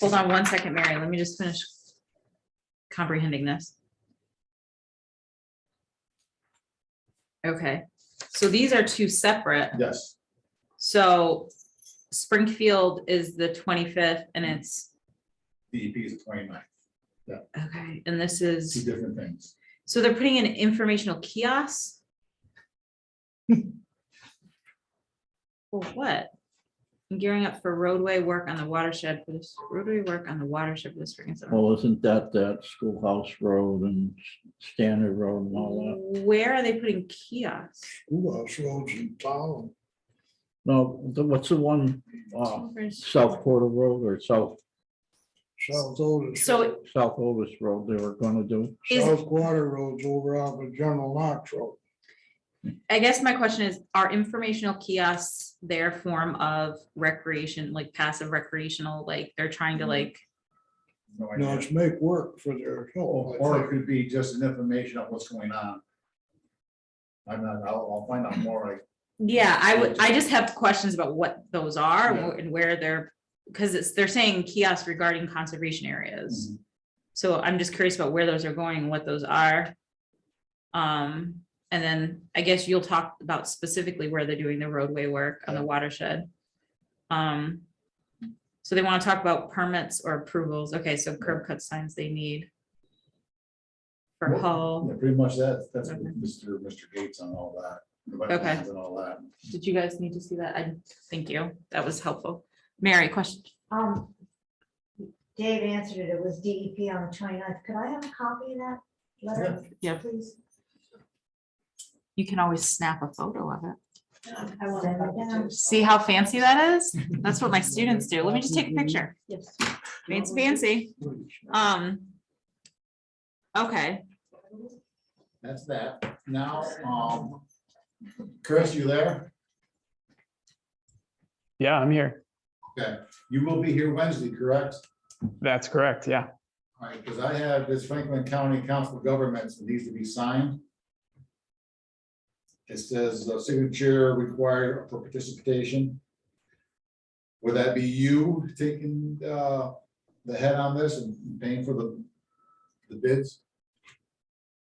Hold on one second, Mary. Let me just finish comprehending this. Okay, so these are two separate. Yes, So Springfield is the twenty-fifth and it's, DEP E is twenty-nine, okay, and this two is, different things. so they're putting in informational kiosks? For what? I'm Gearing up for roadway work on the watershed for this, roadway work on the watershed for the spring and summer. Well, isn't that that Schoolhouse Road and Standard Road and all Where are they putting kiosks? Schoolhouse roads in town. that? No, the- what's the one, uh, South Porter Road or South, South Otis. So- South Otis Road they were gonna do? Is- South Water Road's over off of General Knox Road. I guess my question is, are informational kiosks their form of recreation, like passive recreational, like they're trying to like, No No, idea. it's make work for their help. Or it could be just an information of what's going on. I'm not, I'll, I'll find out more, like, yeah, I would, I just have questions about what those are and where they're, because it's, they're saying kiosks regarding conservation areas. So I'm just curious about where those are going, and what those are. Um, and then I guess you'll talk about specifically where they're doing the roadway work on the watershed. Um, so they want to talk about permits or approvals. Okay, so curb cut signs they need. For Well, Hull, yeah, pretty much that, that's what Mr. Mr. Gates on all that. the Okay. wetlands And all that. did you guys need to see that? I, thank you. That was helpful. Mary, question? Um, Dave answered it, it was DEP on the 29th. Could I have a copy of that letter? Yeah. Please. You can always snap a photo of it. I want it down. See how fancy that is? That's what my students do. Let me just take a picture. Yes. It's fancy. Um. Okay, That's that. Now, um, Chris, you there? Yeah, I'm here. Okay, you will be here Wednesday, correct? That's correct. Yeah. All right, because I have this Franklin County Council of Governments that needs to be signed. It says uh, signature required for participation. Would that be you taking uh, the head on this and paying for the the bids?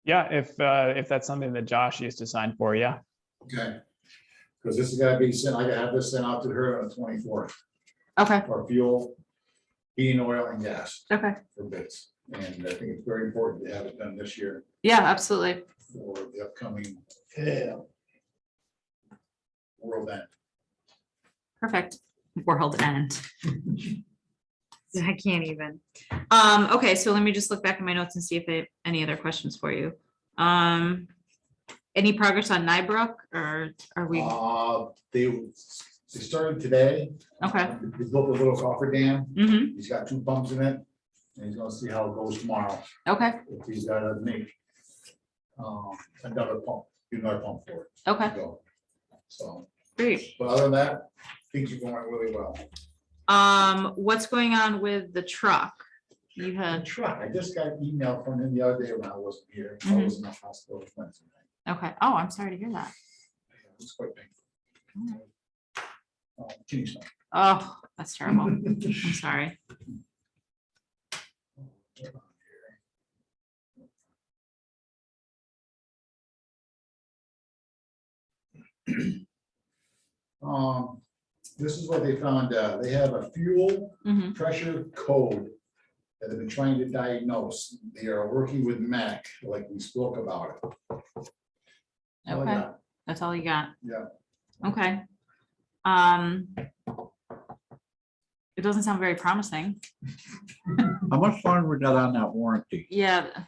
Yeah. If, uh, if that's something that Josh used to sign for, yeah. Okay. Because this is going to be sent, I gotta have this sent out to her on the twenty-fourth okay, for fuel, heating, oil and gas okay. for bids. And I think it's very important to have it done this year Yeah, absolutely. for the upcoming Yeah, world end. Perfect. World end. I can't even. Um, okay, so let me just look back at my notes and see if I, any other questions for you. Um, any progress on Nybrook or are we, Uh, they, they started today. okay. He built a little coffer dam. hmm He's got two pumps in it. And he's gonna see how it goes tomorrow. okay, If he's gotta make um, another pump, do another pump for it. okay, to go. So, great. but other than that, things are going really well. Uh. Um, what's going on with the truck? You I had, tried, I just got an email from him the other day when I wasn't here. I Mhm. was in the hospital Wednesday night. okay, oh, I'm sorry to hear that. It was quite painful. Uh, kidney stone. Oh, that's terrible. I'm sorry. Um, this is what they found out. They have a fuel Mhm. pressure code that they've been trying to diagnose. They are working with MAC, like we spoke about it. uh, All I Okay, got. that's all you got? Yeah. Okay. Um. It doesn't sound very promising. How much longer we got on that warranty? Yeah.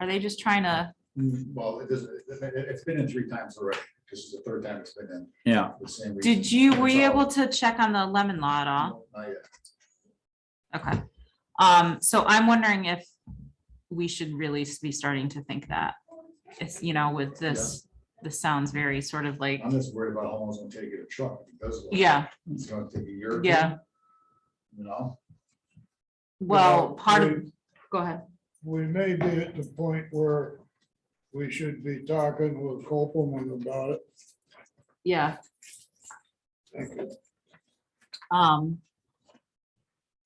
Are they just trying to, Mm, Well, it doesn't, it- it- it's been in three times already. This is the third time it's been in Yeah, the same. did reason. you, were you So- able to check on the lemon law at all? No, Not yet. Okay. Um, so I'm wondering if we should really be starting to think that. It's, you know, with this, this sounds very sort of like, I'm just worried about how long it's gonna take to get a truck. If it does work, yeah, It's gonna take a year. or Yeah. two, You know? well, part of, we- go ahead. We may be at the point where we should be talking with Copeland about it. Yeah. Thank you. Um,